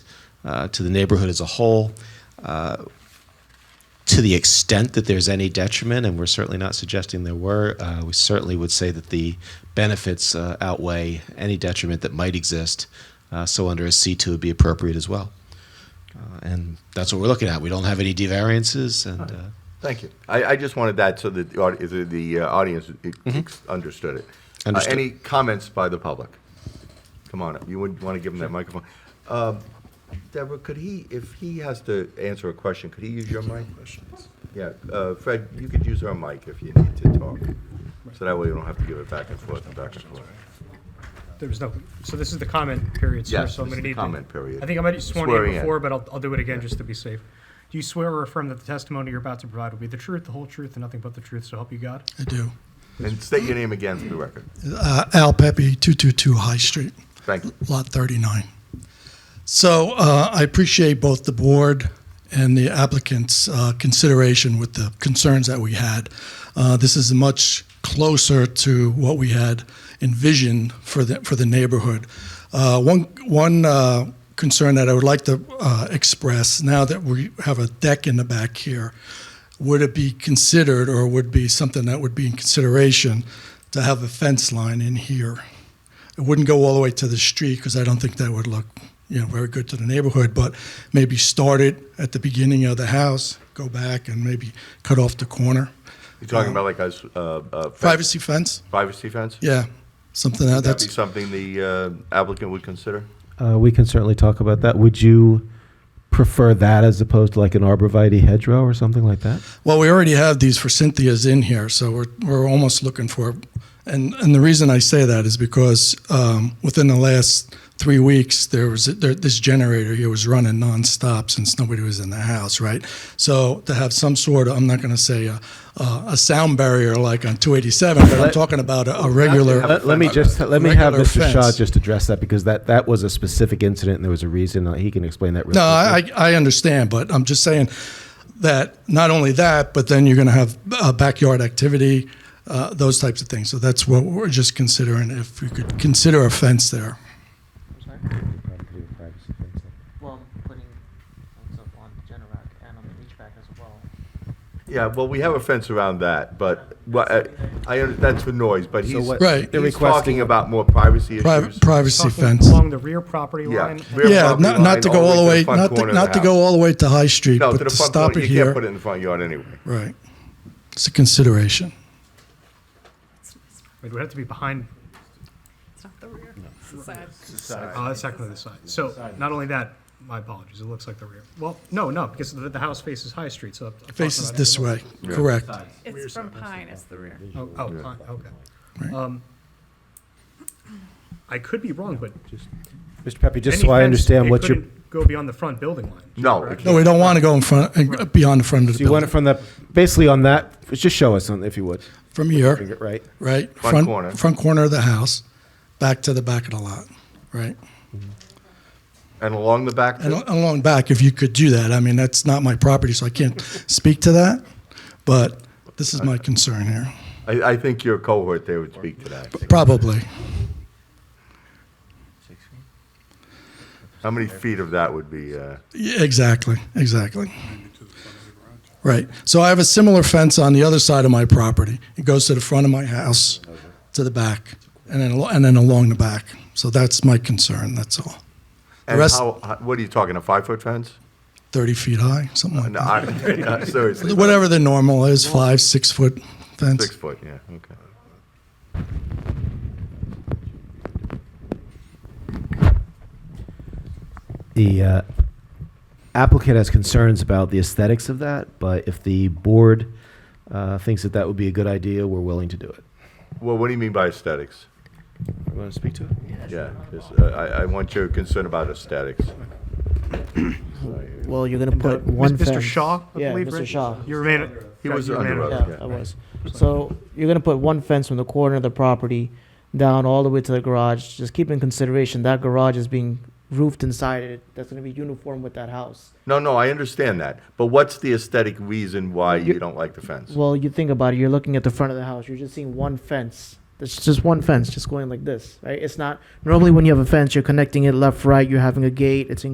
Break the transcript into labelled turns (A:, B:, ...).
A: uh, to the neighborhood as a whole. Uh, to the extent that there's any detriment, and we're certainly not suggesting there were, uh, we certainly would say that the benefits uh, outweigh any detriment that might exist. Uh, so under a C2 would be appropriate as well. Uh, and that's what we're looking at. We don't have any devariances, and uh,
B: Thank you. I, I just wanted that so that the, audi- the, the uh, audience it- ex- understood it. Uh,
A: Understood.
B: any comments by the public? Come on up. You would want to give him that microphone. Um, Deborah, could he, if he has to answer a question, could he use your mic? Yeah, uh, Fred, you could use our mic if you need to talk. So that way you don't have to give it back and forth and back and forth.
C: There was no, so this is the comment period, sir,
B: Yes,
C: so I'm
B: this
C: going
B: is
C: to
B: the
C: need.
B: comment period.
C: I think I might have sworn
B: Swearing
C: you
B: in.
C: before, but I'll, I'll do it again just to be safe. Do you swear or affirm that the testimony you're about to provide will be the truth, the whole truth, and nothing but the truth, so help you God?
D: I do.
B: And state your name again for the record.
D: Uh, Al Pepe, 222 High Street,
B: Thank you.
D: Lot 39. So uh, I appreciate both the board and the applicant's uh, consideration with the concerns that we had. Uh, This is much closer to what we had envisioned for the, for the neighborhood. Uh, One, one uh, concern that I would like to uh, express, now that we have a deck in the back here, would it be considered or would be something that would be in consideration to have a fence line in here? It wouldn't go all the way to the street because I don't think that would look, you know, very good to the neighborhood. But maybe start it at the beginning of the house, go back, and maybe cut off the corner.
B: You're talking about like a, s- uh, uh, fence-
D: Privacy fence,
B: Privacy fence?
D: yeah, something that,
B: That'd
D: that's
B: be something the uh, applicant would consider?
E: Uh, we can certainly talk about that. Would you prefer that as opposed to like an arborvitae hedgerow or something like that?
D: Well, we already have these for Cynthia's in here, so we're, we're almost looking for, and, and the reason I say that is because um, within the last three weeks, there was there, this generator here was running nonstop since nobody was in the house, right? So to have some sort of, I'm not going to say a, a, a sound barrier like on 287, but I'm talking about a, a regular.
E: Let, let me just let me have
D: regular
E: Mr. Shaw
D: fence.
E: just address that because that that was a specific incident and there was a reason. Uh, He can explain that. Really
D: No, I, I I understand, but I'm just saying that not only that, but then you're going to have uh, backyard activity, uh, those types of things. So that's what we're just considering, if we could consider a fence there.
F: Sorry? Well, putting things up on the Generac and on the beach back as well.
B: Yeah, well, we have a fence around that, but, well, I, I under- that's for noise, but he's,
E: what-
D: Right.
E: they're
B: he's
E: requesting-
B: talking about more privacy issues.
D: Privacy, privacy
C: Talking
D: fence.
C: Along the rear property
B: Yeah,
C: line.
B: rear
C: and-
D: Yeah,
B: property
D: not,
B: line
D: not to go all the way,
B: front
D: not
B: corner
D: to,
B: of the
D: not to
B: house.
D: go all the way to High Street,
B: No,
D: but
B: to the front
D: stop
B: corner,
D: it
B: you can't put it
D: here.
B: in the front yard anyway.
D: Right. It's a consideration.
C: It would have to be behind,
G: It's not the rear, it's the side.
C: oh, that's technically the side. So not only that, my apologies, it looks like the rear. Well, no, no, because the, the house faces High Street, so. I'm talking
D: Faces
C: about it.
D: this way, correct.
G: It's from Pine, it's the rear.
C: Oh, oh, fine, okay.
D: Right.
C: Um, I could be wrong, but
E: Mr. Pepe, just
C: any
E: so I
C: fence,
E: understand
C: it
E: what you
C: couldn't Go beyond the front building line.
B: No, it
D: No, we
B: can't.
D: don't want to go in front, uh, beyond the front of
E: so
D: the
E: you want it
D: building.
E: from the basically on that. Just show us on if you would.
D: From here,
E: Finger- Right.
D: right?
B: Front corner.
D: Front corner of the house, back to the back of the lot, right?
B: and along the back,
D: And
B: too?
D: al- along back, if you could do that, I mean, that's not my property, so I can't speak to that, but this is my concern here,
B: I, I think your cohort there would speak to that.
D: probably.
B: How many feet of that would be, uh,
D: Yeah, Exactly, exactly. Right, so I have a similar fence on the other side of my property. It goes to the front of my house, to the back, and then, al- and then along the back. So that's my concern, that's all. The
B: and
D: rest,
B: how, how- what are you talking, a five-foot fence?
D: 30 feet high, something like
B: No,
D: that.
B: I, seriously.
D: Whatever the normal is, five, six-foot fence.
B: Six foot, yeah, okay.
E: the uh, applicant has concerns about the aesthetics of that, but if the board uh, thinks that that would be a good idea, we're willing to do it.
B: Well, what do you mean by aesthetics?
E: You want to speak to it?
B: Yeah, just, uh, I, I want your concern about aesthetics.
F: Well, you're gonna put
C: Mis-
F: one fence.
C: Mr. Shaw, I
F: Yeah,
C: believe,
F: Mr.
C: right?
F: Shaw.
C: You remain.
B: He was
C: you remain-
B: under oath.
F: Yeah, I was. So you're gonna put one fence from the corner of the property down all the way to the garage. Just keep in consideration that garage is being roofed inside it. That's gonna be uniform with that house.
B: No, no, I understand that, but what's the aesthetic reason why you don't like the fence?
F: Well, you think about it, you're looking at the front of the house, you're just seeing one fence. It's just one fence, just going like this, right? It's not, normally when you have a fence, you're connecting it left, right, you're having a gate, it's in